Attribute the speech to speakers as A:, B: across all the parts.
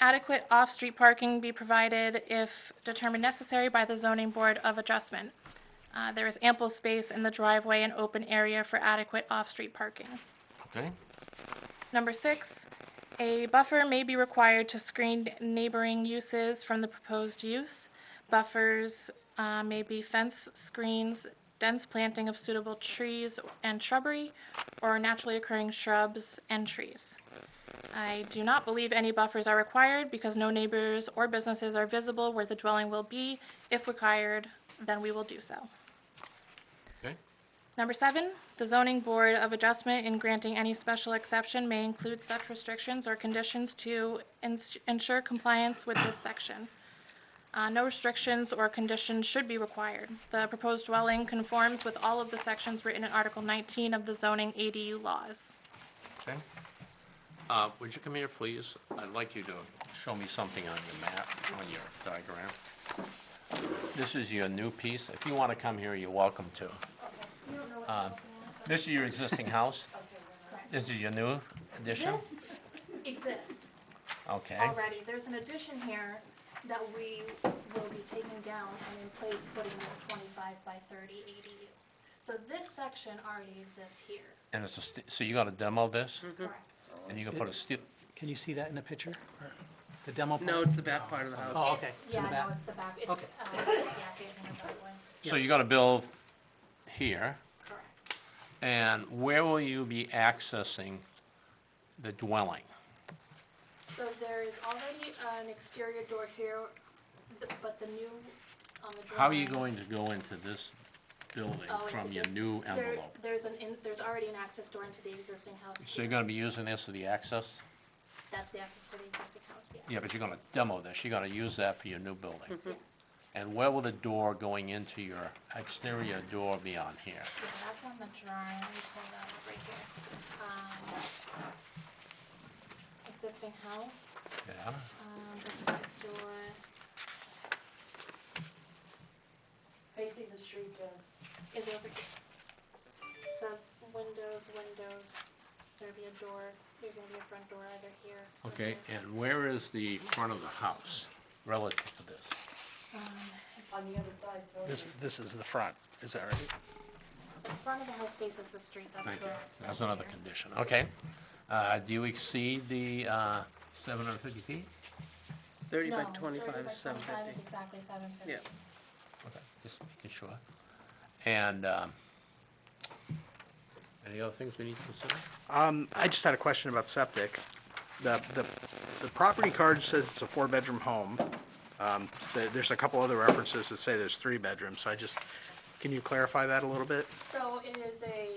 A: adequate off-street parking be provided if determined necessary by the zoning board of adjustment. Uh, There is ample space in the driveway and open area for adequate off-street parking.
B: Okay,
A: Number six, a buffer may be required to screen neighboring uses from the proposed use. Buffers uh, may be fence, screens, dense planting of suitable trees and shrubbery, or naturally occurring shrubs and trees. I do not believe any buffers are required because no neighbors or businesses are visible where the dwelling will be. If required, then we will do so.
B: okay,
A: Number seven, the zoning board of adjustment in granting any special exception may include such restrictions or conditions to ins- ensure compliance with this section. Uh, No restrictions or conditions should be required. The proposed dwelling conforms with all of the sections written in Article 19 of the zoning ADU laws.
B: okay. Uh, would you come here, please? I'd like you to show me something on your map, on your diagram. This is your new piece. If you want to come here, you're welcome to. Um, This is your existing house? This is your new addition?
C: This exists
B: Okay,
C: already. There's an addition here that we will be taking down and in place putting this twenty-five by thirty ADU. So this section already exists here,
B: and it's a, st- so you're going to demo this?
C: correct?
B: And you're going to put a steel,
D: Can you see that in the picture? or The demo?
E: No,
D: part?
E: it's the back part of the house.
D: Oh, okay.
C: It's-
D: to the
C: Yeah,
D: back.
C: no, it's the back. It's,
D: Okay.
C: uh, yeah, facing the back way,
B: so you're going to build here?
C: correct.
B: And where will you be accessing the dwelling?
C: So there is already an exterior door here, th- but the new, on the drawing.
B: How are you going to go into this building
C: Oh, into
B: from your
C: the-
B: new
C: there-
B: envelope?
C: There's an, in- there's already an access door into the existing house
B: So
C: here.
B: you're gonna be using this as the access?
C: That's the access to the existing house, yes.
B: Yeah, but you're gonna demo this, you're gonna use that for your new building.
C: Yes.
B: And where will the door going into your exterior door be on here?
C: Yeah, that's on the drawing, let me pull that up right here. Um, Existing house,
B: Yeah,
C: um, the front door.
F: Facing the street, Jen.
C: is over here. So windows, windows, there'd be a door, there's gonna be a front door either here. or
B: okay,
C: here.
B: and where is the front of the house relative to this?
C: Um,
F: on the other side, Bill.
D: This, this is the front, is that right?
C: The front of the house faces the street, that's
B: Thank you,
C: correct.
B: that's
C: right
B: another
C: here.
B: condition, okay. Uh, do you exceed the, uh, seven hundred fifty feet?
E: Thirty by
C: No,
E: twenty-five, seven
C: 35 is
E: fifty.
C: Exactly seven fifty.
E: Yeah.
B: Okay, just making sure. And, um, any other things we need to consider?
G: Um, I just had a question about septic. The, the, the property card says it's a four-bedroom home. Um, there, there's a couple other references that say there's three bedrooms, so I just, can you clarify that a little bit?
C: So it is a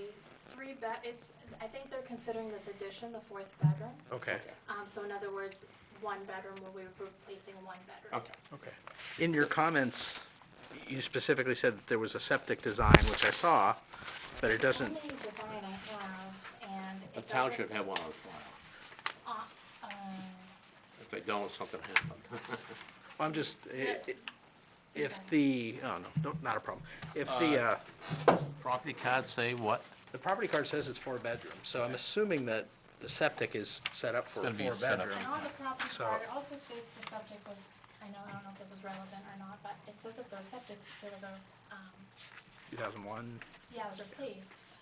C: three bed, it's, I think they're considering this addition the fourth bedroom.
G: Okay,
C: Um, so in other words, one bedroom where we were replacing one bedroom.
B: Okay.
G: okay. In your comments, you specifically said that there was a septic design, which I saw, but it
C: The
G: doesn't,
C: only design I have, and it
B: The
C: doesn't.
B: town should have one on file.
C: uh, um,
B: If they don't, something happened.
G: I'm just, i- i- if the, oh, no, no, not a problem. If the, uh,
B: Property cards say what?
G: the property card says it's four bedrooms, so I'm assuming that the septic is set up for a
B: It's gonna be set up.
G: four-bedroom.
C: And on the property
G: So-
C: card, it also states the subject was, I know, I don't know if this is relevant or not, but it says that the subject, there was a, um,
G: 2001.
C: yeah, it was replaced.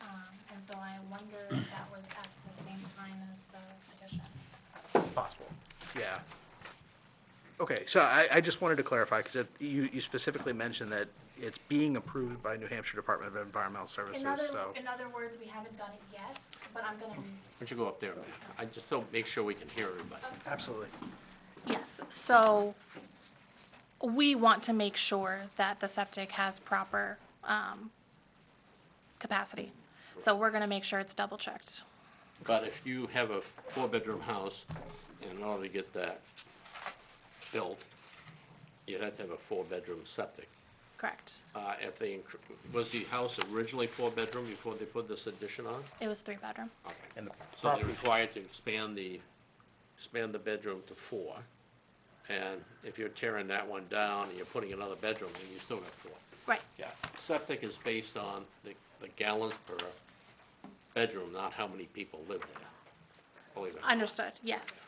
C: Um, and so I wonder if that was at the same time as the addition.
G: Possible. Yeah. Okay, so I, I just wanted to clarify, because you, you specifically mentioned that it's being approved by New Hampshire Department of Environmental Services,
C: In other,
G: so.
C: in other words, we haven't done it yet, but I'm gonna
B: Why don't you go up there, man? I just don't make sure we can hear everybody.
G: Absolutely.
A: Yes, so we want to make sure that the septic has proper um, capacity. So we're going to make sure it's double-checked.
B: But if you have a four-bedroom house, in order to get that built, you'd have to have a four-bedroom septic.
A: Correct.
B: Uh, if they, incre- was the house originally four-bedroom before they put this addition on?
A: It was three-bedroom.
B: Okay.
G: And the
B: So they're
G: property-
B: required to expand the, expand the bedroom to four. And if you're tearing that one down and you're putting another bedroom, then you still got four.
A: Right.
B: Yeah. Septic is based on the, the gallons per bedroom, not how many people live there. Believe it. or not.
A: Understood, yes.